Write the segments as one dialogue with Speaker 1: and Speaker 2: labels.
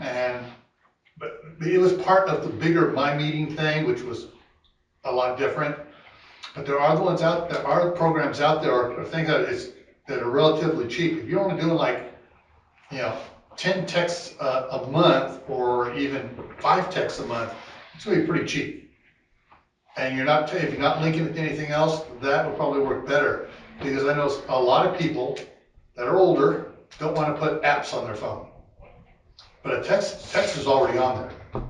Speaker 1: And, but it was part of the bigger my meeting thing, which was a lot different. But there are the ones out, there are programs out there, or or things that is, that are relatively cheap. If you're only doing like, you know, ten texts a, a month, or even five texts a month, it's gonna be pretty cheap. And you're not, if you're not linking it to anything else, that would probably work better. Because I know a lot of people that are older don't wanna put apps on their phone. But a text, text is already on there.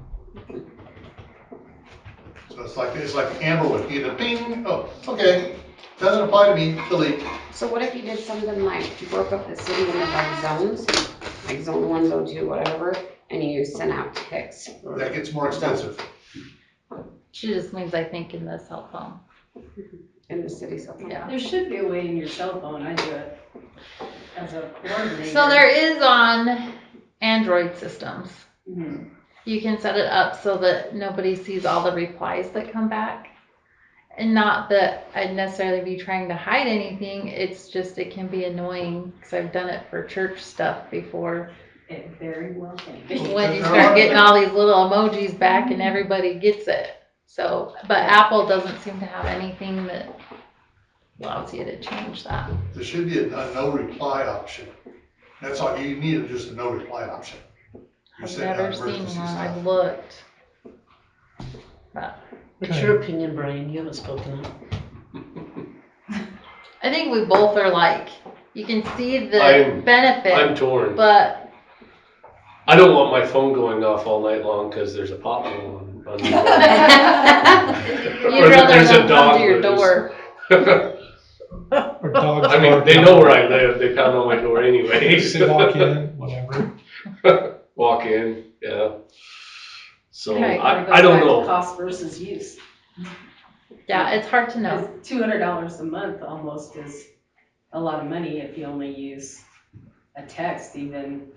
Speaker 1: So it's like, it's like Amber would either ping, oh, okay, doesn't apply to me, delete.
Speaker 2: So what if you did something like broke up the city into like zones, like zone one, zone two, whatever, and you sent out texts?
Speaker 1: That gets more expensive.
Speaker 3: She just means, I think, in the cell phone.
Speaker 2: in the city something?
Speaker 3: Yeah.
Speaker 4: There should be a way in your cell phone, I do it as a coordinator.
Speaker 3: So there is on Android systems.
Speaker 4: Mhm.
Speaker 3: You can set it up so that nobody sees all the replies that come back. And not that I'd necessarily be trying to hide anything, it's just it can be annoying because I've done it for church stuff before.
Speaker 4: It very well can be.
Speaker 3: When you start getting all these little emojis back and everybody gets it. So, but Apple doesn't seem to have anything that allows you to change that.
Speaker 1: There should be a, a no reply option. That's all, you need is just a no reply option. You
Speaker 3: I've
Speaker 1: send out
Speaker 3: never seen
Speaker 1: emergency
Speaker 3: one,
Speaker 1: stuff.
Speaker 3: I've looked.
Speaker 5: What's your opinion, Brian? You haven't spoken up.
Speaker 3: I think we both are like, you can see the
Speaker 6: I'm- I'm
Speaker 3: benefit,
Speaker 6: torn.
Speaker 3: but
Speaker 6: I don't want my phone going off all night long because there's a pothole on, on the road.
Speaker 3: you'd rather
Speaker 6: there's a
Speaker 3: them come
Speaker 6: dog
Speaker 3: to your
Speaker 6: that is-
Speaker 3: door.
Speaker 7: Or dogs.
Speaker 6: I mean,
Speaker 7: bark
Speaker 6: they
Speaker 7: at
Speaker 6: know
Speaker 7: them.
Speaker 6: where I live. They pound on my door anyways.
Speaker 7: They walk in, whatever.
Speaker 6: Walk in, yeah. So
Speaker 3: Okay,
Speaker 6: I, I don't know.
Speaker 4: Cost versus use.
Speaker 3: Yeah, it's hard to know.
Speaker 4: Two hundred dollars a month almost is a lot of money if you only use a text even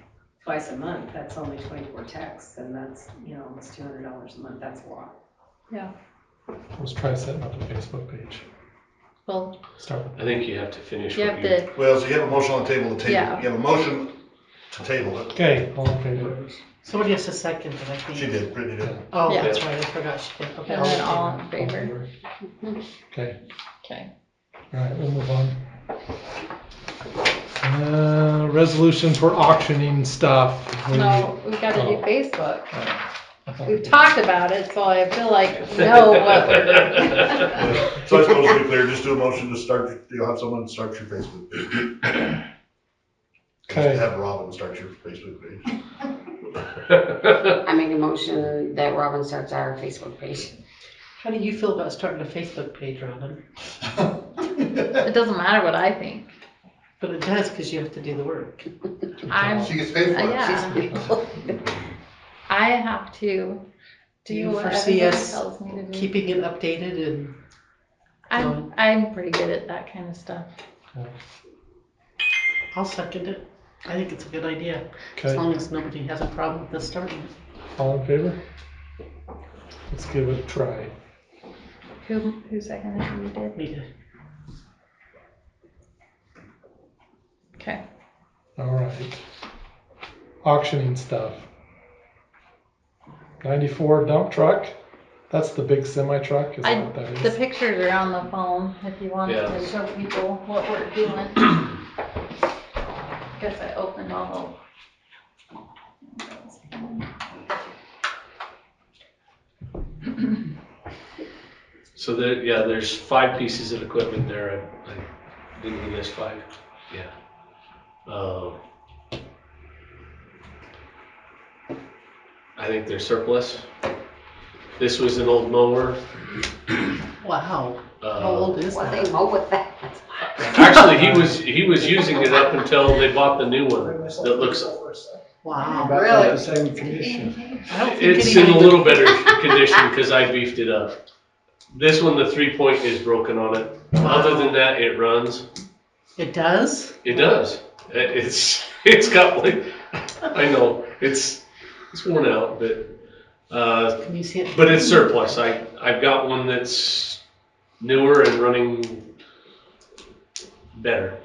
Speaker 4: twice a month. That's only twenty-four texts and that's, you know, almost two hundred dollars a month. That's a lot.
Speaker 7: Let's try setting up a Facebook page.
Speaker 3: Well,
Speaker 7: Start with
Speaker 6: I think you have to finish
Speaker 3: you
Speaker 6: what
Speaker 3: have
Speaker 6: you.
Speaker 3: to,
Speaker 8: Well, so you have a motion on the table to table,
Speaker 3: Yeah.
Speaker 8: it. you have a motion to table it.
Speaker 7: Okay, all in favor?
Speaker 5: Somebody has to second it, I think.
Speaker 8: She did, Brittany did.
Speaker 5: Oh,
Speaker 3: Yeah.
Speaker 5: that's right, I forgot she did. Okay.
Speaker 3: and then all in favor.
Speaker 7: Okay,
Speaker 3: Okay.
Speaker 7: all right, we'll move on. Uh, resolution for auctioning stuff. We-
Speaker 3: No, we've got to
Speaker 6: Oh.
Speaker 3: do Facebook.
Speaker 7: I thought-
Speaker 3: We've talked about it, so I feel like we know what we're doing.
Speaker 8: So I suppose to be clear, just do a motion to start, you'll have someone start your Facebook page.
Speaker 7: Okay.
Speaker 8: Have Robin start your Facebook page.
Speaker 2: I make a motion that Robin starts our Facebook page.
Speaker 5: How do you feel about starting a Facebook page, Robin?
Speaker 3: It doesn't matter what I think.
Speaker 5: But it does, because you have to do the work.
Speaker 3: I'm, uh,
Speaker 1: She gets paid for it.
Speaker 3: yeah, I have to
Speaker 5: Do you
Speaker 3: do what
Speaker 5: foresee
Speaker 3: everybody
Speaker 5: us
Speaker 3: tells me to do.
Speaker 5: Keeping it updated and,
Speaker 3: I'm, I'm pretty good at that kind of stuff.
Speaker 5: I'll second it. I think it's a good idea, as
Speaker 7: Okay,
Speaker 5: long as nobody has a problem with us starting it.
Speaker 7: all in favor? Let's give it a try.
Speaker 3: Who, who seconded who you did?
Speaker 5: We did.
Speaker 3: Okay.
Speaker 7: All right. Auctioning stuff. Ninety-four dump truck. That's the big semi truck, is
Speaker 3: I-
Speaker 7: that what that
Speaker 3: The
Speaker 7: is?
Speaker 3: pictures are on the phone if you want
Speaker 6: Yeah.
Speaker 3: to show people what we're doing. Guess I opened all the.
Speaker 6: So there, yeah, there's five pieces of equipment there. I, I didn't we list five? Yeah. Um, I think they're surplus. This was an old mower.
Speaker 5: Wow, how
Speaker 6: Uh,
Speaker 5: old is
Speaker 2: What
Speaker 5: that?
Speaker 2: they mow with that?
Speaker 6: actually, he was he was using it up until they bought the new one that looks.
Speaker 5: Wow.
Speaker 2: Really?
Speaker 7: The same condition.
Speaker 5: I don't think
Speaker 6: It's in a
Speaker 5: anybody-
Speaker 6: little better condition because I beefed it up. This one, the three point is broken on it. Other than that, it runs.
Speaker 5: It does?
Speaker 6: It does. It- It's it's got like I know it's it's worn out, but uh,
Speaker 5: Can you see it?
Speaker 6: but it's surplus. I I've got one that's newer and running better.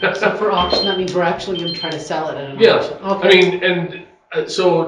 Speaker 5: So for auction, that means we're actually gonna try to sell it at an
Speaker 6: Yeah,
Speaker 5: auction?
Speaker 6: I mean, and uh, so